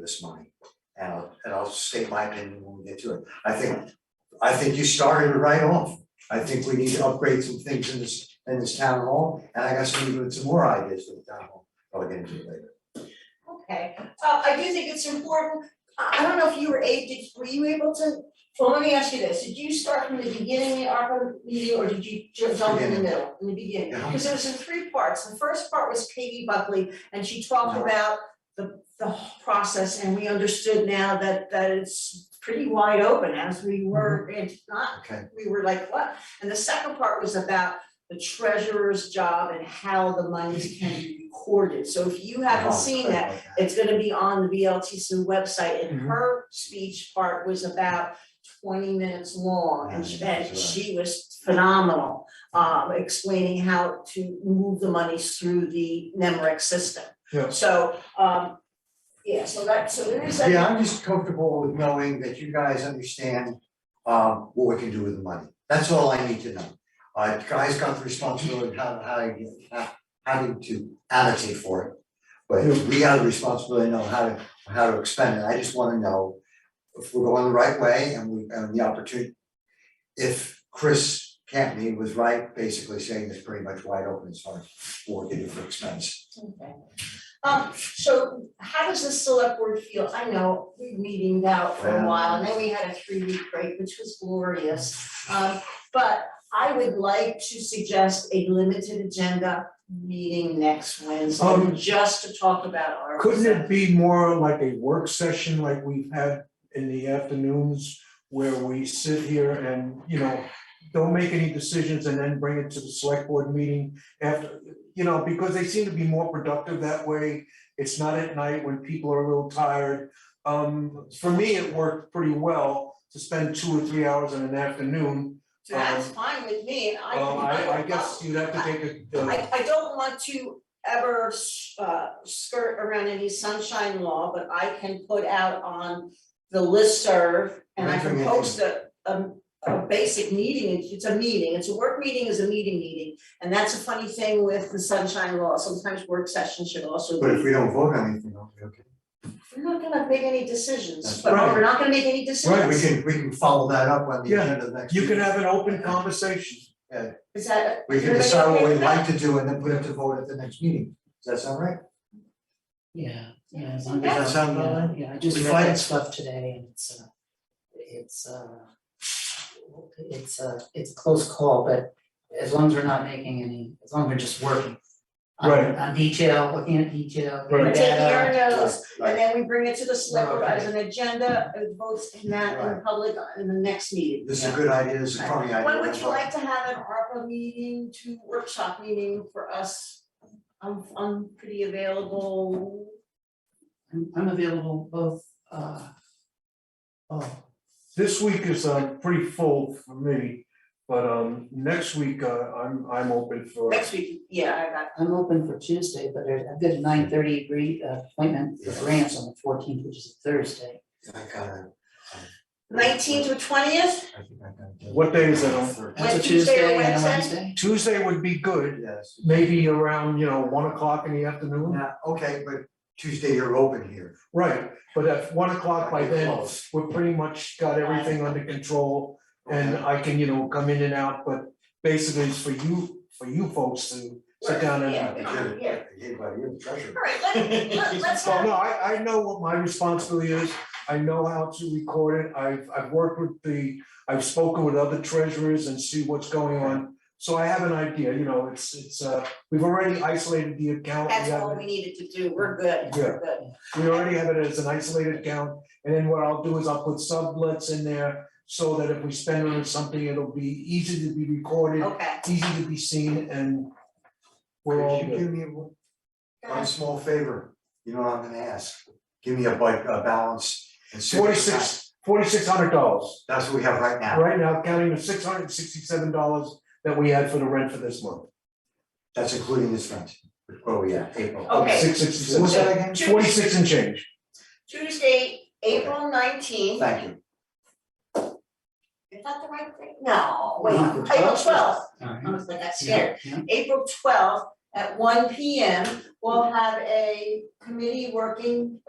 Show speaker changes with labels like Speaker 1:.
Speaker 1: this money. And I'll, and I'll state my opinion when we get to it. I think, I think you started it right off. I think we need to upgrade some things in this, in this town hall, and I got some, even some more ideas for the town hall, I'll get into it later.
Speaker 2: Okay, uh, I do think it's important, I, I don't know if you were a, did, were you able to, well, let me ask you this, did you start from the beginning of the ARPA meeting, or did you ju- jump in the
Speaker 1: Beginning.
Speaker 2: middle, in the beginning?
Speaker 1: Yeah.
Speaker 2: Because it was in three parts, the first part was Katie Buckley, and she talked
Speaker 1: No.
Speaker 2: about the, the whole process, and we understood now that, that it's pretty wide open, as we were,
Speaker 1: Mm-hmm.
Speaker 2: it's not
Speaker 1: Okay,
Speaker 2: we were like, what? And the second part was about the treasurer's job and how the monies can be recorded. So if you haven't
Speaker 1: Uh-huh.
Speaker 2: seen that, it's gonna be on the VLTC website and her speech part was about twenty minutes long and she,
Speaker 1: Yeah,
Speaker 2: and
Speaker 1: that's right.
Speaker 2: she was phenomenal. Um, explaining how to move the monies through the NEMRIC system.
Speaker 3: Yeah.
Speaker 2: So, um, yeah, so that, so there is that.
Speaker 1: Yeah, I'm just comfortable with knowing that you guys understand um what we can do with the money. That's all I need to know. Uh, guys got the responsibility of how how to how having to annotate for it. But we have the responsibility to know how to how to expend it. I just wanna know if we're going the right way and we and the opportunity. If Chris Campney was right, basically saying it's pretty much wide open as far as what we can do for expense.
Speaker 2: Okay. Um, so how does the select board feel? I know we've meeting out for a while, and then we had a three-week break, which was glorious. Um, but I would like to suggest a limited agenda meeting next Wednesday,
Speaker 3: Um,
Speaker 2: just to talk about our.
Speaker 3: Couldn't it be more like a work session like we've had in the afternoons where we sit here and, you know, don't make any decisions and then bring it to the select board meeting after, you know, because they seem to be more productive that way. It's not at night when people are a little tired. Um, for me, it worked pretty well to spend two or three hours in an afternoon.
Speaker 2: That's fine with me, and I can.
Speaker 3: Um, I, I guess you'd have to take a, uh,
Speaker 2: I I don't want to ever uh skirt around any sunshine law, but I can put out on the listserv and I can
Speaker 1: Mentoring
Speaker 2: post a a a basic meeting, it's a meeting, it's a work meeting is a meeting meeting. And that's a funny thing with the sunshine law, sometimes work sessions should also
Speaker 1: But if
Speaker 2: be,
Speaker 1: we don't vote on anything, I'll be okay.
Speaker 2: we're not gonna make any decisions,
Speaker 1: That's
Speaker 2: but
Speaker 3: right.
Speaker 2: we're not gonna make any decisions.
Speaker 1: Right, we can, we can follow that up on the
Speaker 3: Yeah,
Speaker 1: agenda next.
Speaker 3: you
Speaker 1: week.
Speaker 3: could have an open conversation.
Speaker 2: Is that?
Speaker 1: We can
Speaker 2: everybody
Speaker 1: decide what
Speaker 2: okay
Speaker 1: we'd
Speaker 2: with that?
Speaker 1: like to do and then put it to vote at the next meeting. Does that sound right?
Speaker 4: Yeah, yeah,
Speaker 2: Yeah,
Speaker 4: as
Speaker 2: so
Speaker 4: long as.
Speaker 2: that's-
Speaker 1: Does that sound about
Speaker 4: yeah,
Speaker 1: right?
Speaker 4: Yeah, I just
Speaker 1: We
Speaker 4: read
Speaker 1: find-
Speaker 4: that stuff today and it's uh, it's uh, it's uh, it's a close call, but as long as we're not making any, as long as we're just working. on-
Speaker 3: Right.
Speaker 4: On detail, looking at detail,
Speaker 3: Right.
Speaker 2: We're
Speaker 4: getting
Speaker 2: taking
Speaker 4: data.
Speaker 2: our notes, And
Speaker 1: Right.
Speaker 2: then we bring it to the select board
Speaker 4: Right.
Speaker 2: as an agenda, it votes in that in
Speaker 1: Oh, Right.
Speaker 2: public in the next meeting.
Speaker 1: This is a good idea, this is a crummy idea.
Speaker 2: When would you like to have an ARPA meeting to workshop meeting for us? I'm I'm pretty available.
Speaker 4: I'm I'm available both uh. Oh,
Speaker 3: This week is uh pretty full for me, but um next week uh I'm I'm open for.
Speaker 2: Next week, yeah, I got,
Speaker 4: I'm open for Tuesday, but there's, I've got a nine thirty agree uh, appointment for grants on the fourteenth, which is a Thursday.
Speaker 1: I gotta,
Speaker 2: nineteenth or twentieth,
Speaker 1: I think I gotta. do
Speaker 3: What day is it on?
Speaker 1: Thursday.
Speaker 4: That's a
Speaker 2: Tuesday or
Speaker 4: Tuesday and a
Speaker 2: Wednesday?
Speaker 4: Wednesday.
Speaker 3: Tuesday would be good,
Speaker 1: Yes.
Speaker 3: maybe around, you know, one o'clock in the afternoon.
Speaker 1: Yeah, okay, but Tuesday you're open here.
Speaker 3: Right, but at one o'clock by then,
Speaker 1: Close.
Speaker 3: we're pretty much got everything under control and
Speaker 1: Okay.
Speaker 3: I can, you know, come in and out, but basically it's for you, for you folks to sit down and.
Speaker 2: Yeah.
Speaker 1: You're- you're- you're the treasurer.
Speaker 2: all right, let let let's
Speaker 3: Well,
Speaker 2: have,
Speaker 3: no, I I know what my responsibility is, I know how to record it, I've I've worked with the, I've spoken with other treasurers and see what's going on. So I have an idea, you know, it's it's uh, we've already isolated the account, we
Speaker 2: that's what
Speaker 3: have,
Speaker 2: we
Speaker 3: it-
Speaker 2: needed to do, we're good, we're good.
Speaker 3: we already have it as an isolated account. And then what I'll do is I'll put sublets in there, so that if we spend on something, it'll be easy to be recorded,
Speaker 2: Okay.
Speaker 3: easy to be seen, and we're
Speaker 1: Could
Speaker 3: all
Speaker 1: you
Speaker 3: good.
Speaker 1: give me one- one small favor? You know what I'm gonna ask? Give me a bike, a balance and. see what you got.
Speaker 3: Forty-six, forty-six hundred dollars.
Speaker 1: That's what we have right now.
Speaker 3: right now, counting the six hundred and sixty-seven dollars that we had for the rent for this month.
Speaker 1: That's including this rent. Where we at, April?
Speaker 2: Okay.
Speaker 3: Six
Speaker 1: What was
Speaker 3: sixty-six,
Speaker 1: that again?
Speaker 2: Tues-
Speaker 3: forty-six and change.
Speaker 2: Tuesday, April nineteenth,
Speaker 1: Thank you.
Speaker 2: is that the right thing? No, wait,
Speaker 4: No, the
Speaker 2: April
Speaker 4: 12th.
Speaker 2: twelfth,
Speaker 4: All right.
Speaker 2: I was like, that's
Speaker 4: Yeah,
Speaker 2: scared.
Speaker 4: yeah.
Speaker 2: April twelfth at one P M, we'll have a committee working,